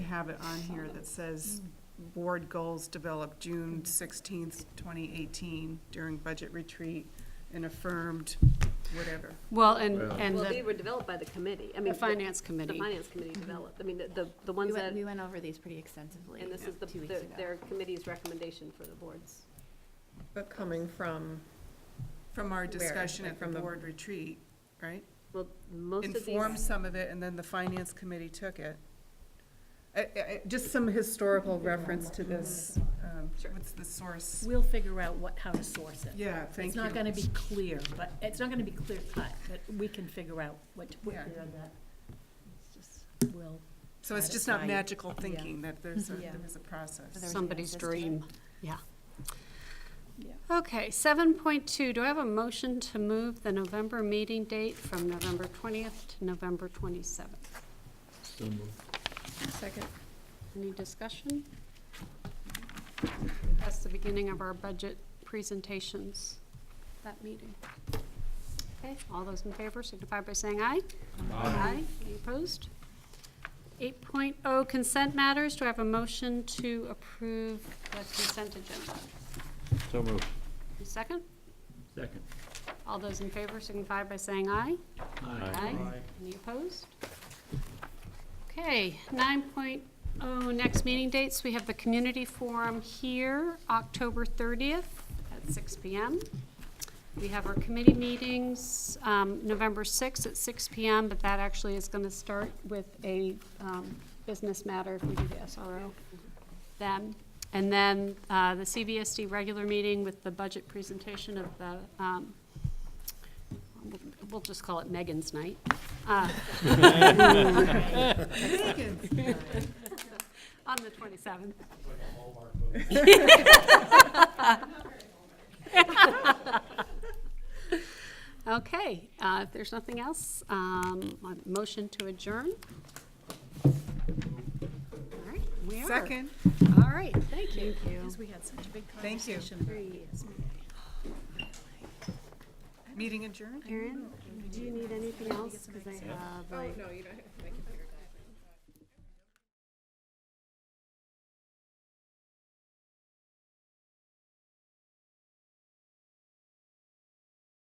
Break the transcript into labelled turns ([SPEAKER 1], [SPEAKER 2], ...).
[SPEAKER 1] have it on here that says board goals developed June sixteenth, twenty eighteen during budget retreat and affirmed whatever.
[SPEAKER 2] Well, and,
[SPEAKER 3] Well-
[SPEAKER 2] and
[SPEAKER 4] Well, they
[SPEAKER 2] the,
[SPEAKER 4] were developed by the committee, I
[SPEAKER 2] the
[SPEAKER 4] mean.
[SPEAKER 2] finance
[SPEAKER 4] The
[SPEAKER 2] committee.
[SPEAKER 4] finance committee developed, I mean, the- the, the
[SPEAKER 5] We
[SPEAKER 4] ones that,
[SPEAKER 5] went, we went over these pretty extensively
[SPEAKER 4] and this is the,
[SPEAKER 5] two weeks
[SPEAKER 4] the-
[SPEAKER 5] ago.
[SPEAKER 4] their committee's recommendation for the boards.
[SPEAKER 6] But coming from,
[SPEAKER 1] From our
[SPEAKER 6] Where?
[SPEAKER 1] discussion
[SPEAKER 6] Like
[SPEAKER 1] at the
[SPEAKER 6] from the-
[SPEAKER 1] board retreat, right?
[SPEAKER 4] Well, most of
[SPEAKER 1] Informed
[SPEAKER 4] these,
[SPEAKER 1] some of it and then the finance committee took it. I- I- I- Just some historical reference to this, um,
[SPEAKER 4] Sure.
[SPEAKER 1] what's the source?
[SPEAKER 7] We'll figure out what, how to source it.
[SPEAKER 1] Yeah, thank
[SPEAKER 7] It's
[SPEAKER 1] you.
[SPEAKER 7] not gonna be clear, but, it's not gonna be clear cut, but we can figure out what to put
[SPEAKER 1] Yeah.
[SPEAKER 7] there that. it's just- We'll,
[SPEAKER 1] So it's just not
[SPEAKER 7] satisfy-
[SPEAKER 1] magical thinking, that there's, a-
[SPEAKER 7] Yeah.
[SPEAKER 1] there is a
[SPEAKER 5] There
[SPEAKER 1] process.
[SPEAKER 5] was
[SPEAKER 2] somebody's
[SPEAKER 5] no system.
[SPEAKER 2] dream, yeah.
[SPEAKER 7] Yeah.
[SPEAKER 2] Okay, seven point two, do I have a motion to move the November meeting date from November twentieth to November twenty-seventh?
[SPEAKER 3] So moved.
[SPEAKER 6] second,
[SPEAKER 2] Any discussion? That's the beginning of our budget presentations, that meeting. Okay, all those in favor signify by saying aye. Aye. Any opposed? Eight oh, consent matters, do I have a motion to approve the consent agenda?
[SPEAKER 3] So moved.
[SPEAKER 2] A Second,
[SPEAKER 3] Second.
[SPEAKER 2] all those in favor signify by saying aye. Aye. Any opposed? Okay, nine oh, next meeting dates, we have the community forum here, October thirtieth at six P M. We have our committee meetings, um, November sixth at six P M, but that actually is gonna start with a, um, business matter if we do the S R O then. And then, uh, the C V S D regular meeting with the budget presentation of the, um, we'll- we'll just call it Megan's night. Uh, On the 27th. Okay, uh, if there's nothing else, um, a motion to adjourn. All right, we are.
[SPEAKER 1] Second,
[SPEAKER 2] All right, thank you.
[SPEAKER 7] because we had such a big
[SPEAKER 1] Thank you.
[SPEAKER 7] conversation about this.
[SPEAKER 1] meeting adjourned?
[SPEAKER 2] Erin, do you need anything else? Because I have like.
[SPEAKER 6] no, you don't have to make it.